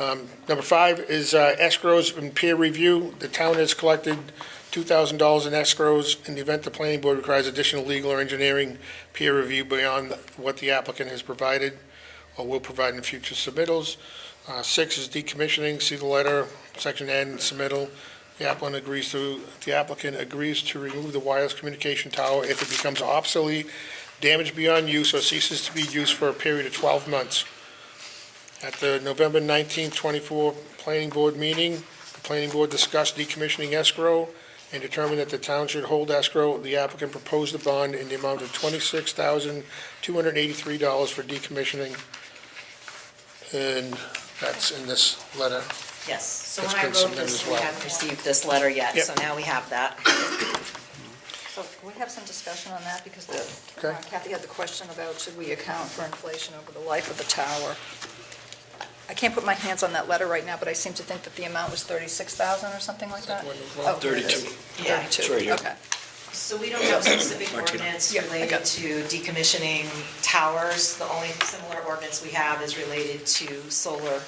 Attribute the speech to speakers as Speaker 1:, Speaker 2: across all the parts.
Speaker 1: Um, Number five is uh, escrows and peer review. The town has collected $2,000 in escrows in the event the planning board requires additional legal or engineering peer review beyond what the applicant has provided or will provide in future submittals. Uh, Six is decommissioning, see the letter, section N, submittal. The applicant agrees to, the applicant agrees to remove the wireless communication tower if it becomes obsolete, damaged beyond use, or ceases to be used for a period of 12 months. At the November 19, 24 Planning Board meeting, the Planning Board discussed decommissioning escrow and determined that the town should hold escrow. The applicant proposed a bond in the amount of $26,283 for decommissioning. And that's in this letter.
Speaker 2: Yes, so
Speaker 1: It's
Speaker 2: when I
Speaker 1: been
Speaker 2: wrote
Speaker 1: submitted
Speaker 2: this,
Speaker 1: as
Speaker 2: we
Speaker 1: well.
Speaker 2: hadn't received this letter yet,
Speaker 1: Yep.
Speaker 2: so now we have that.
Speaker 3: So can we have some discussion on that, because the-
Speaker 1: Okay.
Speaker 3: uh, Kathy had the question about should we account for inflation over the life of the tower? I can't put my hands on that letter right now, but I seem to think that the amount was 36,000 or something like that?
Speaker 1: That one as well.
Speaker 3: Oh, here it is.
Speaker 4: 32.
Speaker 2: Yeah.
Speaker 4: It's right
Speaker 3: 32,
Speaker 4: here.
Speaker 3: okay.
Speaker 2: So we don't have specific
Speaker 4: Martina.
Speaker 2: ordinance
Speaker 3: Yeah, I got
Speaker 2: related
Speaker 3: it.
Speaker 2: to decommissioning towers. The only similar ordinance we have is related to solar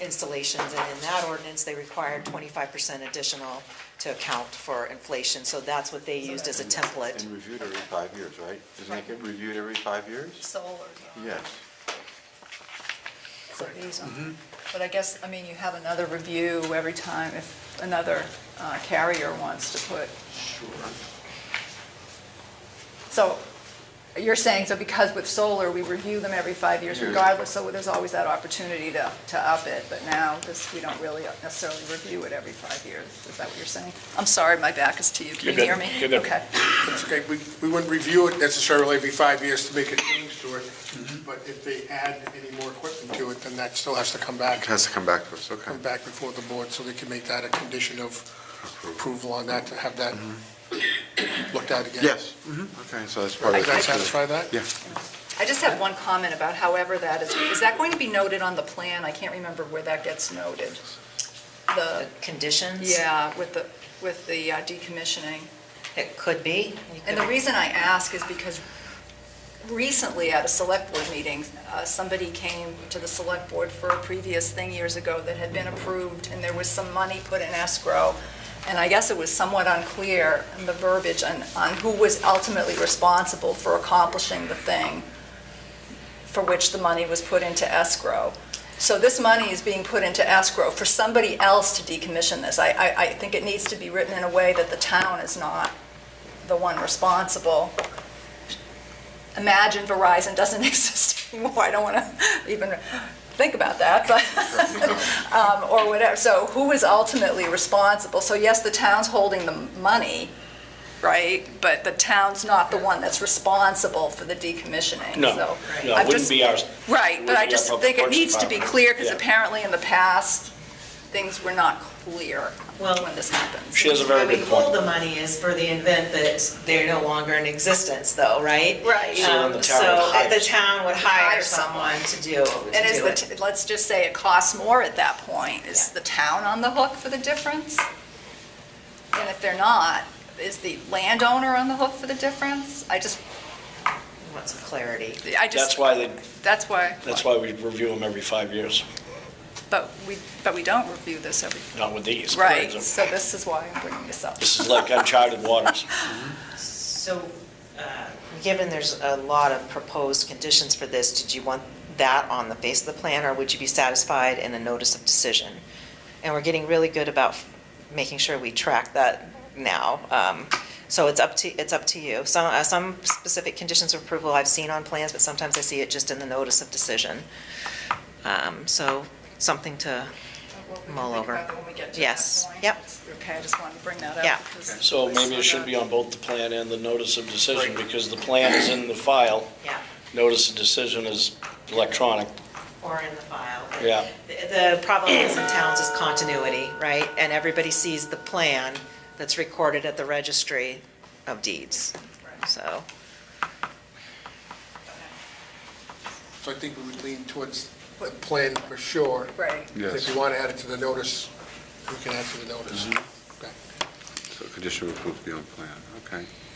Speaker 2: installations. And in that ordinance, they required twenty-five percent additional to account for inflation. So that's what they used as a template.
Speaker 5: And reviewed every five years, right? Isn't it get reviewed every five years?
Speaker 3: Solar.
Speaker 5: Yes.
Speaker 3: So these are-
Speaker 4: Mm-hmm.
Speaker 3: But I guess, I mean, you have another review every time if another uh, carrier wants to put.
Speaker 5: Sure.
Speaker 3: So you're saying, so because with solar, we review them every five years
Speaker 5: Yeah.
Speaker 3: regardless, so there's always that opportunity to, to up it, but now this, we don't really necessarily review it every five years. Is that what you're saying? I'm sorry, my back is to you. Can you
Speaker 4: You're
Speaker 3: hear
Speaker 4: good.
Speaker 3: me?
Speaker 4: You're good.
Speaker 3: Okay.
Speaker 1: That's okay, we, we wouldn't review it necessarily every five years to make a change to it, but if they add any more equipment to it, then that still has to come
Speaker 5: It
Speaker 1: back,
Speaker 5: has to come back to us, okay.
Speaker 1: come back before the board, so they can make that a condition of approval on that, to have that looked at again.
Speaker 5: Yes. Okay, so that's part of
Speaker 1: Does
Speaker 5: it.
Speaker 1: that satisfy that?
Speaker 5: Yeah.
Speaker 3: I just have one comment about however that is, is that going to be noted on the plan? I can't remember where that gets noted. The,
Speaker 2: Conditions?
Speaker 3: yeah, with the, with the uh, decommissioning.
Speaker 2: It could be. You
Speaker 3: And
Speaker 2: could-
Speaker 3: the reason I ask is because recently at a select board meeting, uh, somebody came to the select board for a previous thing years ago that had been approved, and there was some money put in escrow. And I guess it was somewhat unclear in the verbiage on, on who was ultimately responsible for accomplishing the thing for which the money was put into escrow. So this money is being put into escrow for somebody else to decommission this. I, I, I think it needs to be written in a way that the town is not the one responsible. Imagine Verizon doesn't exist anymore, I don't want to even think about that, but, um, or whatever, so who is ultimately responsible? So yes, the town's holding the money, right, but the town's not the one that's responsible for the decommissioning,
Speaker 4: No,
Speaker 3: so.
Speaker 4: no,
Speaker 3: I'm
Speaker 4: it wouldn't
Speaker 3: just-
Speaker 4: be our,
Speaker 3: Right, but I
Speaker 4: wouldn't be our
Speaker 3: just
Speaker 4: public
Speaker 3: think it
Speaker 4: works
Speaker 3: needs to be
Speaker 4: department.
Speaker 3: clear, because
Speaker 4: Yeah.
Speaker 3: apparently in the past, things were not clear
Speaker 2: Well-
Speaker 3: when this happens.
Speaker 4: she has a very good
Speaker 2: Where we hold
Speaker 4: point.
Speaker 2: the money is for the event that they're no longer in existence though, right?
Speaker 3: Right. So
Speaker 4: then the
Speaker 2: Um,
Speaker 4: town would
Speaker 2: So
Speaker 4: hire
Speaker 2: the town would hire
Speaker 3: Hire
Speaker 2: someone to do, to
Speaker 3: And is
Speaker 2: do it.
Speaker 3: the, t- let's just say it costs more at that point, is
Speaker 2: Yeah.
Speaker 3: the town on the hook for the difference? And if they're not, is the landowner on the hook for the difference? I just,
Speaker 2: We Want some clarity.
Speaker 3: I
Speaker 4: That's
Speaker 3: just,
Speaker 4: why they,
Speaker 3: that's why,
Speaker 4: that's why we review them every five years,
Speaker 3: but we, but we don't review this every,
Speaker 4: not with these.
Speaker 3: right, so this is why I'm bringing this up.
Speaker 4: This is like uncharted waters.
Speaker 2: So, uh, given there's a lot of proposed conditions for this, did you want that on the face of the plan, or would you be satisfied in a notice of decision? And we're getting really good about f- making sure we track that now. Um, So it's up to, it's up to you. Some, uh, some specific conditions of approval I've seen on plans, but sometimes I see it just in the notice of decision. Um, So something to,
Speaker 3: Well, we can
Speaker 2: Mull
Speaker 3: think
Speaker 2: over.
Speaker 3: about it when we get to that
Speaker 2: Yes.
Speaker 3: point.
Speaker 2: Yep.
Speaker 3: Okay, I just wanted to bring that up.
Speaker 2: Yeah.
Speaker 3: because-
Speaker 4: So maybe it should be on both the plan and the notice of decision, because the plan is in the file,
Speaker 2: yeah.
Speaker 4: notice of decision is electronic.
Speaker 2: or in the file.
Speaker 4: Yeah.
Speaker 2: The the problem is in towns is continuity, right? And everybody sees the plan that's recorded at the registry of deeds, so.
Speaker 1: So I think we would lean towards the plan for sure.
Speaker 3: Right.
Speaker 1: If
Speaker 5: Yes.
Speaker 1: you want to add it to the notice, we can add to the notice. Okay.
Speaker 5: Mm-hmm. So condition of approval beyond plan, okay.